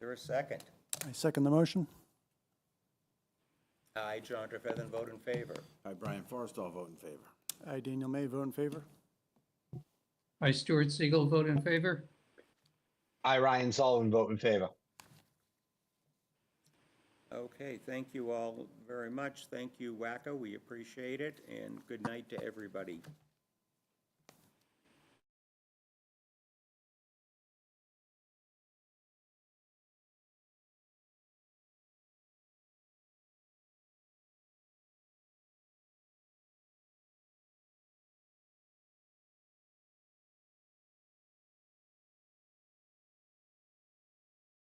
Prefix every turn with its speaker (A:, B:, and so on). A: there a second?
B: I second the motion.
A: I, John Trefethan, vote in favor.
C: I, Brian Forrestall, vote in favor.
B: I, Daniel May, vote in favor.
D: I, Stuart Siegel, vote in favor.
E: I, Ryan Sullivan, vote in favor.
A: Okay, thank you all very much. Thank you, WACA. We appreciate it, and good night to everybody.